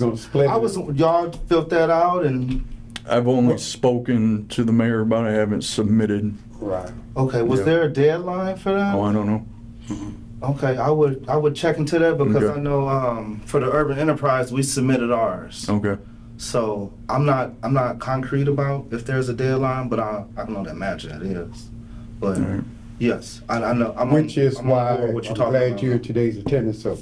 gonna split I was, it. y'all filled that out and, I've only spoken to the mayor about it, I haven't submitted, Right. okay, was Yeah. there a deadline for that? oh, I don't know. Okay, I would, I would check into that because Okay. I know, um, for the urban enterprise, we submitted ours. Okay, So I'm not, I'm not concrete about if there's a deadline, but I, I know that imagine it is. But Alright. yes, I, I know. I'm on- Which is I'm on why board I'm with what you're talking glad about. you're today's attendance, so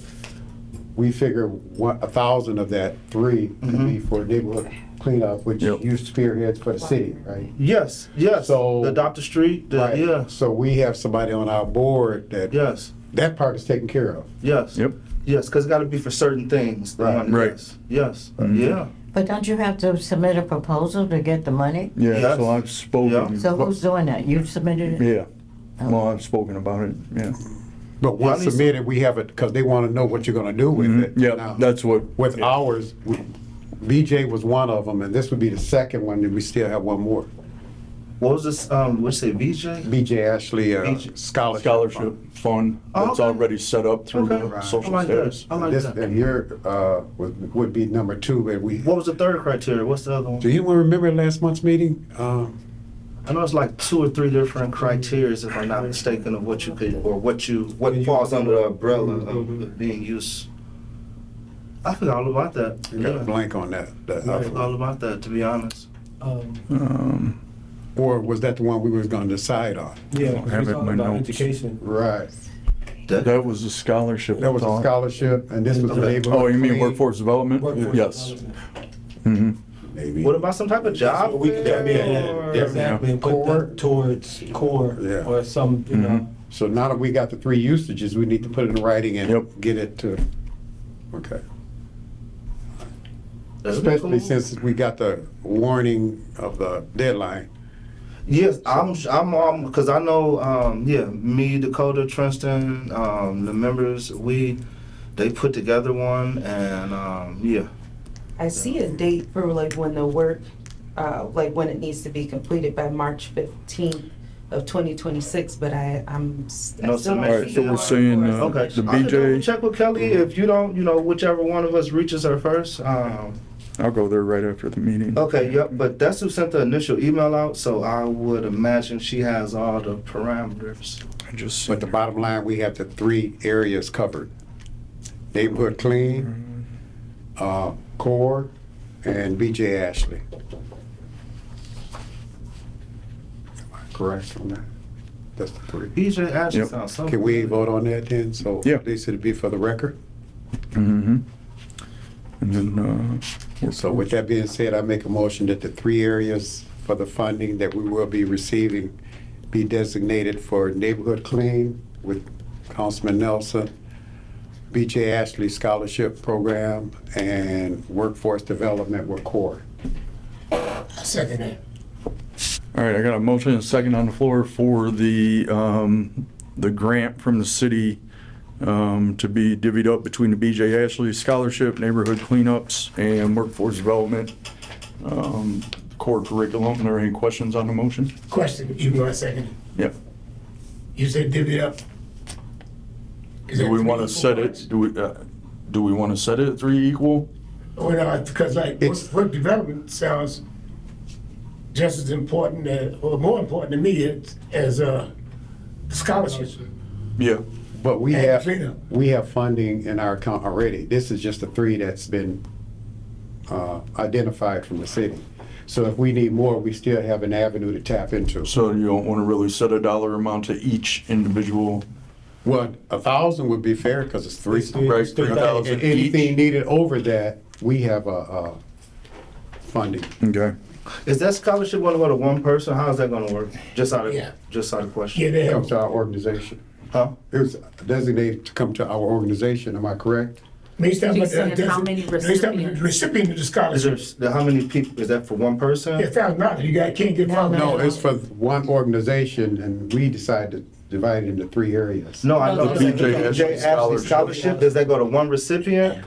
we figure one, a thousand of that, three, could Mm-hmm. be for neighborhood cleanup, which Yep. you spearheads for the city, right? Yes, yes. So- the adopt a street. The, Right. Yeah. So we have somebody on our board that, Yes. that part is taken care of. Yes. yep, Yes, because it's got to be for certain things. the Right. Mm-hmm. money, Right. Yes. yes. Mhm. Yeah. But don't you have to submit a proposal to get the money? yeah, Yes. so I've spoken. So who's Oh. doing that? You've submitted it? Yeah, well, I've spoken about it, yeah. But Yeah, I once mean, so- submitted, we have it, because they want to know what you're gonna do with it. Mm-hmm. Yeah, Now, that's what, With ours, we- BJ was one of them, and this would be the second one, and we still have one more. What was this? Um, what you say, VJ? BJ Ashley uh, BJ. Scholarship. Fund. scholarship fund Oh, that's okay. already set up through Okay. the Right. I social like that. status. I like This, that. and your, uh, would, would be number two, but we, What do was the third criteria? What's the other one? anyone remember last month's meeting? Um, I know it's like two or three different criterias, if I'm not mistaken, of what you could, or what you, what falls under the umbrella of being used. I forgot all about that. I got a Yeah. blank on that. that- uh, I forgot all about that, to be honest. Um, Um, Or was that the one we was gonna decide on? yeah, have it we're in talking my about notes. education. Right. That was a scholarship. That was a thought. scholarship, and this was the Okay. neighborhood. Oh, you mean clean. workforce development? workforce Yes. development. hmm Maybe. What about some type of job? what we could- fair, I mean, or- yeah, Exactly, and put Core. that towards core Yeah. or some, Mm-hmm. you know. So now that we got the three usages, we need to put it in writing and Yep. get it to, okay. That'd be Especially cool. since we got the warning of the deadline. Yes, I'm, I'm, um, cause I know, um, yeah, me, Dakota, Tristan, um, the members, we, they put together one and, um, yeah. I see a date for like when the work, uh, like when it needs to be completed by March fifteenth of twenty twenty-six, but I, I'm. s- I No still don't submission. All right, so see we're it. saying, uh, Okay. the Mm-hmm. I could double BJ, Check with Kelly if you don't, you know, whichever one of us reaches her first, um, I'll go there right after the meeting. Oh. Okay, yep, but that's who sent the initial email out, so I would imagine she has all the parameters. I just. But the bottom line, we have the three areas covered. Neighborhood Clean, uh, Core, and BJ Ashley. Am I Correct on that? That's the three. BJ Ashley Yep. sounds so. Can we vote on that then? So Yeah. they said it'd be for the record. hmm And then, uh. So with that being said, I make a motion that the three areas for the funding that we will be receiving be designated for Neighborhood Clean with Councilman Nelson, BJ Ashley Scholarship Program, and Workforce Development with CORE. All right, I got a motion and a second on the floor for the, um, the grant from the city, um, to be divvied up between the BJ Ashley Scholarship, Neighborhood Cleanups, and Workforce Development, um, core curriculum. Are there any questions on the motion? Question, you want a second? Yep. You said divvy it up. Is Do that we three want to equal set parts? it, do we, uh, do we want to set it at three equal? Or not, because like, It's- work work development sounds just as important, as- or more important to me it's- as uh, scholarship. Yeah. But we And have, cleanup. we have funding in our account already. This is just the three that's been uh, identified from the city. So if we need more, we still have an avenue to tap into. So you don't want to really set a dollar amount to each individual? Well, a thousand would be fair because it's three. Right, three thousand And each? anything needed over that, we have a, uh funding. Okay. Is that scholarship gonna go to one person? How's that gonna work? Just out of, Yeah. just out of Yeah, question. they It have comes to our organization. Huh? It was designated to come to our organization, am I correct? May start You with the- said how many may start with the recipients? Recipient of the Is scholarship. there, how many people, is that for one Yeah, person? thousand dollars, you got, can't get No, five. No, it's for one organization and we decide to divide it into three areas. No, I No, know. the The BJ BJ Ashley Ashley Scholarship. Scholarship, does that go to one recipient?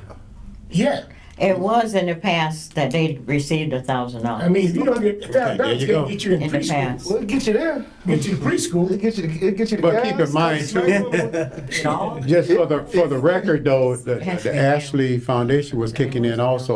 Yeah, It was in the past that they received a thousand I dollars. mean, you don't get, thousand there dollars you can't go. get you in In the past. preschool. Well, it get you there. Get you in preschool. It get you, it get you the But keep gas. in mind too, just for the, for the record though, the the Ashley Foundation was kicking in also